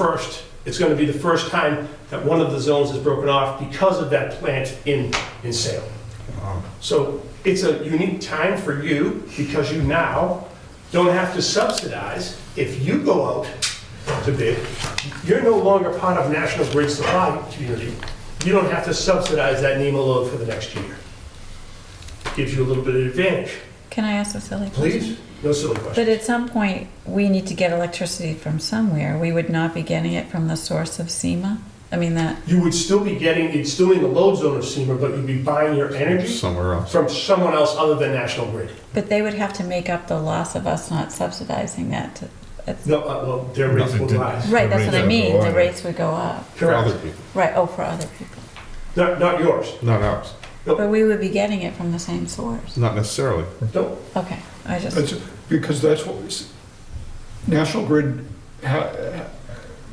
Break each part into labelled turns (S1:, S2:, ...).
S1: first, it's gonna be the first time that one of the zones is broken off because of that plant in, in sale. So it's a unique time for you, because you now don't have to subsidize. If you go out to bid, you're no longer part of National Grid Supply Community. You don't have to subsidize that NEMA load for the next year. Gives you a little bit of advantage.
S2: Can I ask a silly question?
S1: Please, no silly
S2: But
S1: questions.
S2: at some point, we need to get electricity from somewhere. We would not be getting it from the source of SEMA? I mean, that,
S1: You would still be getting, you'd still be in the load zone of SEMA, but you'd be buying your energy
S3: somewhere else.
S1: from someone else other than National Grid.
S2: but they would have to make up the loss of us not subsidizing that. to- it's-
S1: No, uh, well, their rates will
S3: Nothing to-
S1: rise.
S2: Right, that's what I
S3: rates
S2: mean,
S3: would go
S2: the
S3: up.
S2: rates would go up.
S3: For other
S1: Correct.
S3: people,
S2: Right, oh, for other people.
S1: Not, not yours.
S3: not ours,
S2: But we would be getting it from the same source.
S3: not necessarily.
S1: No,
S2: Okay, I just,
S4: That's, because that's what, we s- National Grid, ha-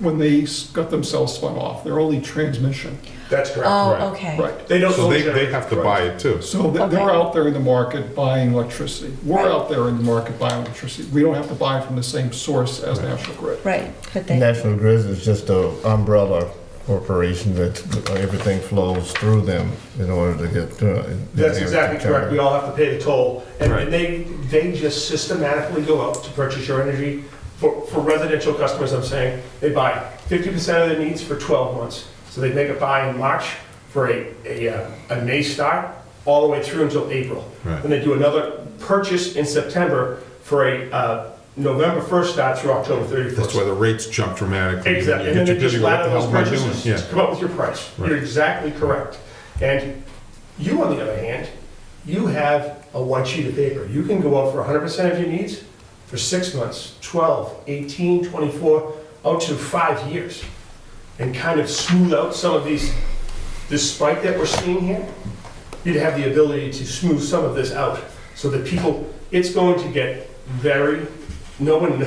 S4: when they s- got themselves spun off, they're only transmission,
S1: that's correct.
S3: right,
S2: oh, okay.
S4: right?
S1: They don't
S3: So
S1: own
S3: they, they
S1: generators.
S3: have to buy it too.
S4: So they- they're
S2: Okay.
S4: out there in the market buying electricity. We're
S2: Right.
S4: out there in the market buying electricity. We don't have to buy from the same source as National Grid.
S2: Right, but they,
S5: National Grid is just a umbrella corporation that everything flows through them in order to get. uh,
S1: That's
S5: the
S1: exactly
S5: charter.
S1: correct. We all have to pay the toll.
S3: Right.
S1: And they, they just systematically go out to purchase your energy. For, for residential customers, I'm saying, they buy 50% of their needs for 12 months. So they make a buy in March for a, a, uh, a May start, all the way through until April.
S3: Right.
S1: And they do another purchase in September for a uh, November 1st start through October 31st.
S3: That's why the rates jump dramatically.
S1: Exactly, and
S3: You
S1: then
S3: get
S1: they
S3: your
S1: just
S3: dizzy, what
S1: ladder
S3: the hell
S1: those
S3: am I doing?
S1: purchases to
S3: Yeah,
S1: come up with your price. You're
S3: Right.
S1: exactly correct. And you, on the other hand, you have a one sheet of paper. You can go out for 100% of your needs for six months, 12, 18, 24, out to five years, and kind of smooth out some of these, this spike that we're seeing here. You'd have the ability to smooth some of this out, so that people, it's going to get very, no one,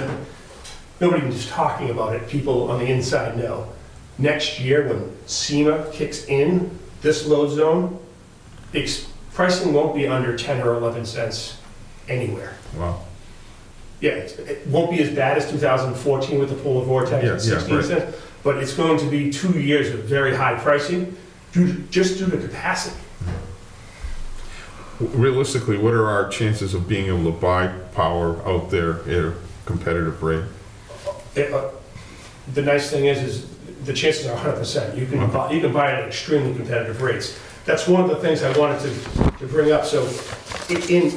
S1: nobody was talking about it, people on the inside know. Next year, when SEMA kicks in this load zone, the ex- pricing won't be under 10 or 11 cents anywhere.
S3: wow,
S1: Yeah, it's- it won't be as bad as 2014 with the polar vortex
S3: Yeah, yeah,
S1: at 16
S3: right.
S1: cents, but it's going to be two years of very high pricing, due to- just due to capacity.
S3: realistically, what are our chances of being able to buy power out there at a competitive rate?
S1: It, uh, The nice thing is, is the chances are 100%. You can buy, you can buy it at extremely competitive rates. That's one of the things I wanted to, to bring up. So i- in,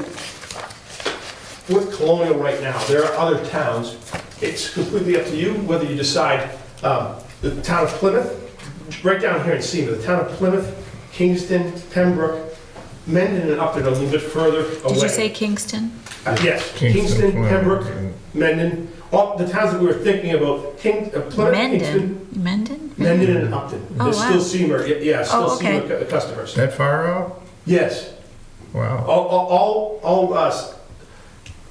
S1: with Colonial right now, there are other towns. It's completely up to you whether you decide, um, the town of Plymouth, right down here in Seaman, the town of Plymouth, Kingston, Pembroke, Mendon and Upton are a little bit further away.
S2: did you say Kingston?
S1: Uh, Yes,
S5: Kingston,
S1: Kingston,
S5: Plymouth,
S1: Pembroke,
S5: and-
S1: Mendon, all the towns that we were thinking about, King, uh, Plymouth, Kingston,
S2: Mendon? Mendon?
S1: Mendon
S5: Mm-hmm.
S1: and Upton.
S2: Oh,
S1: They're still
S2: wow.
S1: Seymour, y- yeah, still
S2: Oh, okay.
S1: Seymour cu- customers.
S5: That far out?
S1: Yes,
S5: Wow.
S1: all, all- all, all us,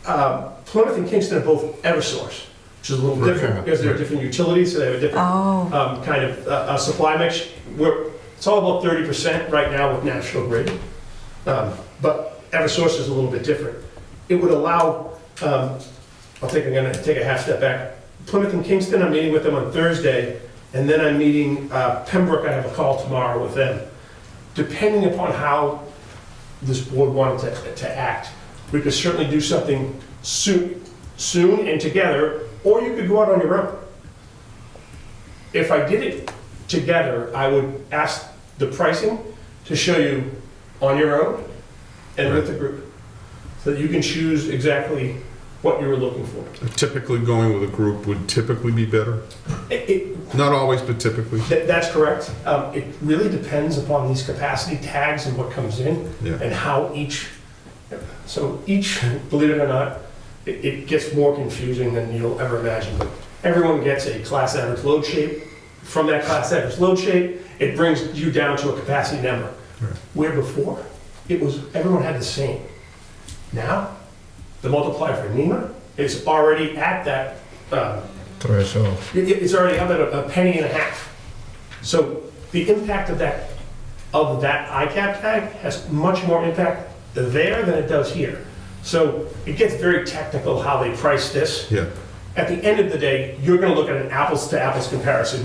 S1: um, Plymouth and Kingston are both Eversource, which is a little
S5: Right,
S1: different
S5: yeah,
S1: because they're
S5: right.
S1: different utilities, so they have a different
S2: Oh,
S1: um, kind of uh, uh, supply mix. We're, it's all about thirty percent right now with National Grid, um, but EverSource is a little bit different. It would allow, um, I think I'm gonna take a half step back. Plymouth and Kingston, I'm meeting with them on Thursday, and then I'm meeting uh, Pembroke. I have a call tomorrow with them. Depending upon how this board wanted to, to act, we could certainly do something soon, soon and together, or you could go out on your own if I did it together, I would ask the pricing to show you on your own and with the group, so that you can choose exactly what you were looking for.
S3: Typically, going with a group would typically be better,
S1: It- it-
S3: not always, but typically,
S1: that- that's correct. Um, it really depends upon these capacity tags and what comes in
S3: yeah.
S1: and how each, so each, believe it or not, it, it gets more confusing than you'll ever imagine. But everyone gets a class average load shape. From that class average load shape, it brings you down to a capacity number.
S3: Right.
S1: Where before, it was, everyone had the same. Now, the multiplier for NEMA is already at that, um,
S5: Threshold.
S1: it- it- It's already up at a a penny and a half. So the impact of that, of that ICAP tag has much more impact there than it does here. So it gets very technical how they price this.
S3: Yeah,
S1: at the end of the day, you're gonna look at an apples-to-apples comparison